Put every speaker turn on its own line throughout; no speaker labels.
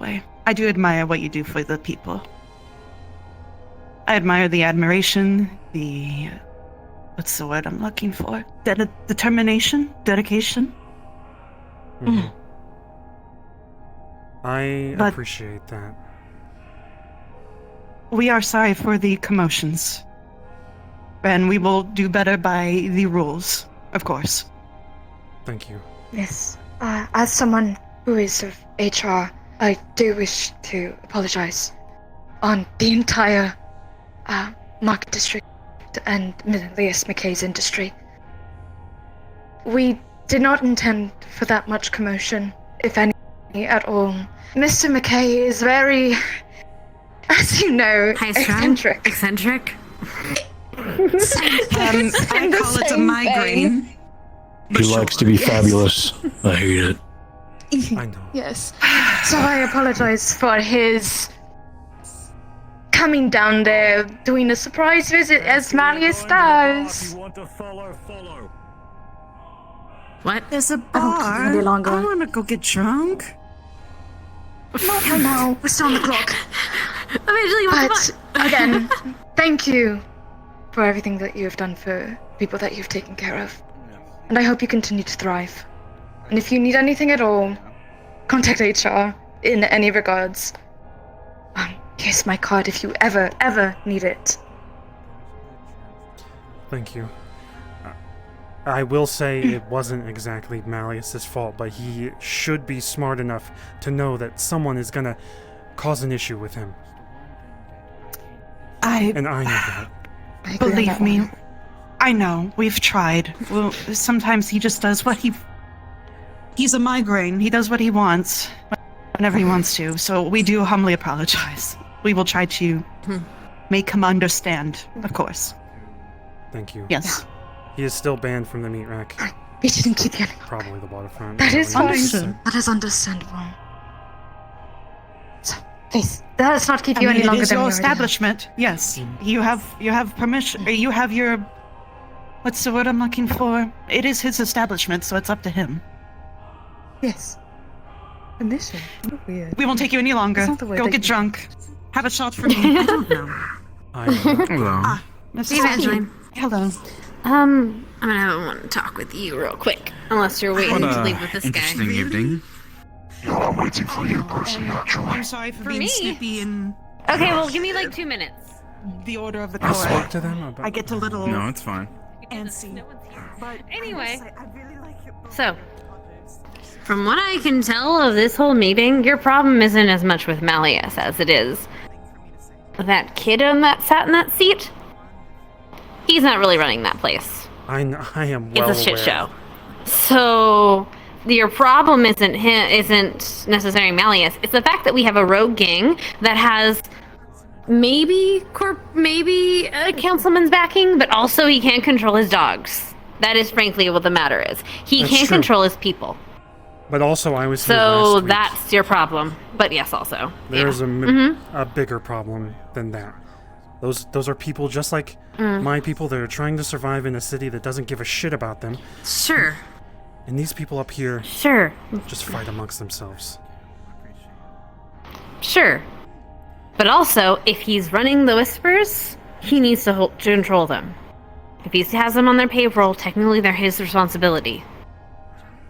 way. I do admire what you do for the people. I admire the admiration, the what's the word I'm looking for? De- determination, dedication.
Mhm. I
But-
appreciate that.
We are sorry for the commotions, and we will do better by the rules, of course.
Thank you.
Yes. Uh, as someone who is of HR, I do wish to apologize on the entire uh, Market District and Milius McKay's industry. We did not intend for that much commotion, if any at all. Mr. McKay is very, as you know,
High strung?
eccentric.
Eccentric?
Um,
It's
I
in the
call it a
same
migraine.
He likes to be
Yes.
fabulous. I hate it.
I know.
Yes.
So I apologize for his coming down there, doing a surprise visit as Malleus does.
What?
There's a
don't think
bar.
it's gonna be longer.
I want to go get drunk.
I know, we're still on the clock.
Eventually, what the
But
fuck?
again, thank you for everything that you have done for people that you've taken care of. And I hope you continue to thrive. And if you need anything at all, contact HR in any regards. Um, here's my card if you ever, ever need it.
Thank you. Uh, I will say it wasn't exactly Malleus's fault, but he should be smart enough to know that someone is gonna cause an issue with him,
I
and I know that.
I agree on
Believe
that
me,
one.
I know. We've tried. Well, sometimes he just does what he. He's a migraine. He does what he wants whenever he wants to. So we do humbly apologize. We will try to make him understand, of course.
Thank you.
Yes.
He is still banned from the meat rack,
We shouldn't keep yelling.
probably the waterfront.
That
I
is
don't know what he
fine.
said.
That is understandable. So, please, let's not keep
I
you
mean,
any
it
longer
is
than
your
we already have.
establishment. Yes, you have you have permission. uh, You have your. What's the word I'm looking for? It is his establishment, so it's up to him.
Yes. Permission. What weird.
We won't take you any longer.
That's not the word
Go
that
get
you-
drunk. Have a shot for me.
I don't know.
I know.
Hello.
Miss-
Hey, Evangeline.
Hello.
Um, I'm gonna have one talk with you real quick. Unless you're waiting to leave with this
interesting
guy.
evening.
Um, I'm sorry for, being
me?
snippy in
Okay, well, give me like two minutes.
the order of the
I
core.
spoke to them about.
I get a little
No, it's fine.
antsy. But
Anyway.
I really like your book.
So, from what I can tell of this whole meeting, your problem isn't as much with Malleus as it is that kid on that sat in that seat. He's not really running that place.
I, kn- I am
It's
well
a shit
aware.
show. So your problem isn't him, isn't necessarily Malleus. It's the fact that we have a rogue gang that has maybe corp, maybe a councilman's backing, but also he can't control his dogs. That is frankly what the matter is. He
That's
can't
true.
control his people.
But also, I was here last
So
week.
that's your problem. But yes, also.
There's a m a
Mm-hmm.
a bigger problem than that. Those those are people just like
Mm.
my people that are trying to survive in a city that doesn't give a shit about them,
Sure.
and these people up here
Sure.
just fight amongst themselves.
Sure. But also, if he's running the whispers, he needs to, hold, to control them. If he has them on their payroll, technically they're his responsibility.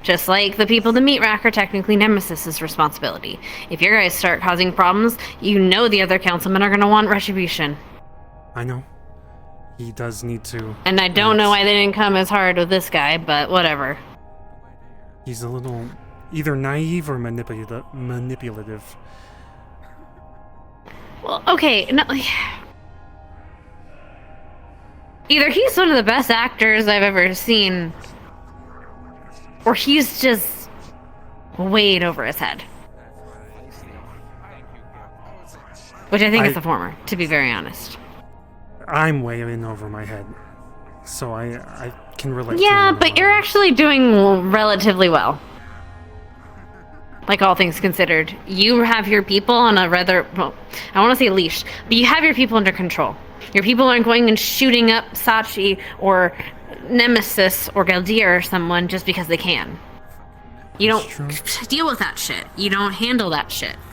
Just like the people to meet rack are technically Nemesis's responsibility. If your guys start causing problems, you know the other councilmen are going to want retribution.
I know. He does need to.
And I don't know why they didn't come as hard with this guy, but whatever.
He's a little either naive or manipula- manipulative.
Well, okay. No. Either he's one of the best actors I've ever seen, or he's just way in over his head. Which I think is
I-
the former, to be very honest.
I'm way in over my head, so I I can relate. to
Yeah,
him in a
but you're
way.
actually doing relatively well. Like all things considered, you have your people on a rather well, I want to say leash, but you have your people under control. Your people aren't going and shooting up Sachi or Nemesis or Galdir or someone just because they can. You
That's
don't deal with that shit. You don't handle that shit.